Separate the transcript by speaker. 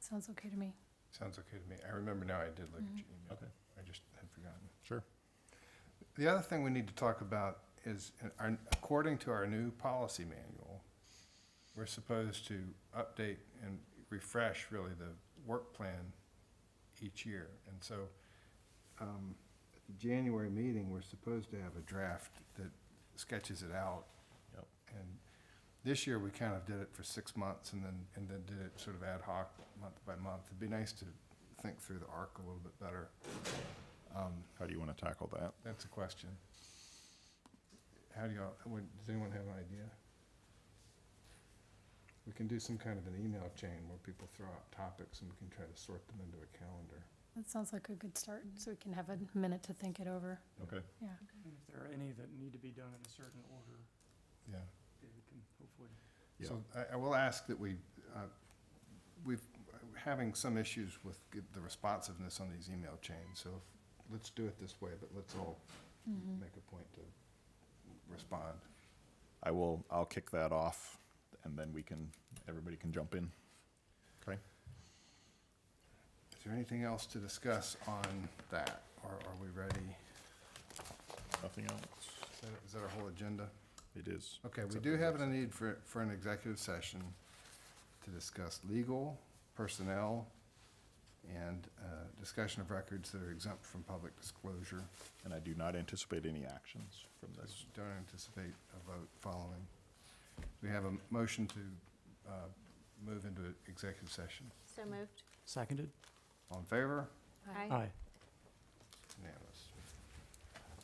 Speaker 1: Sounds okay to me.
Speaker 2: Sounds okay to me. I remember now I did look at your email.
Speaker 3: Okay.
Speaker 2: I just had forgotten.
Speaker 3: Sure.
Speaker 2: The other thing we need to talk about is, uh, our- according to our new policy manual, we're supposed to update and refresh really the work plan each year. And so, um, at the January meeting, we're supposed to have a draft that sketches it out.
Speaker 3: Yep.
Speaker 2: And this year, we kind of did it for six months and then, and then did it sort of ad hoc, month by month. It'd be nice to think through the arc a little bit better. Um,
Speaker 3: How do you want to tackle that?
Speaker 2: That's a question. How do y'all, would, does anyone have an idea? We can do some kind of an email chain where people throw out topics and we can try to sort them into a calendar.
Speaker 1: That sounds like a good start, so we can have a minute to think it over.
Speaker 3: Okay.
Speaker 1: Yeah.
Speaker 4: And if there are any that need to be done in a certain order,
Speaker 2: Yeah.
Speaker 4: David can hopefully.
Speaker 3: Yeah.
Speaker 2: So I, I will ask that we, uh, we've, having some issues with g- the responsiveness on these email chains, so if- let's do it this way, but let's all make a point to respond.
Speaker 3: I will, I'll kick that off and then we can, everybody can jump in. Okay.
Speaker 2: Is there anything else to discuss on that, or are we ready?
Speaker 3: Nothing else?
Speaker 2: Is that- Is that our whole agenda?
Speaker 3: It is.
Speaker 2: Okay, we
Speaker 3: Except
Speaker 2: do
Speaker 3: for
Speaker 2: have
Speaker 3: this.
Speaker 2: a need for, for an executive session to discuss legal, personnel, and uh, discussion of records that are exempt from public disclosure.
Speaker 3: And I do not anticipate any actions from this.
Speaker 2: Don't anticipate a vote following. We have a motion to uh, move into executive session.
Speaker 5: So moved.
Speaker 4: Seconded?
Speaker 2: All in favor?
Speaker 5: Aye.
Speaker 4: Aye.
Speaker 2: Unanimous.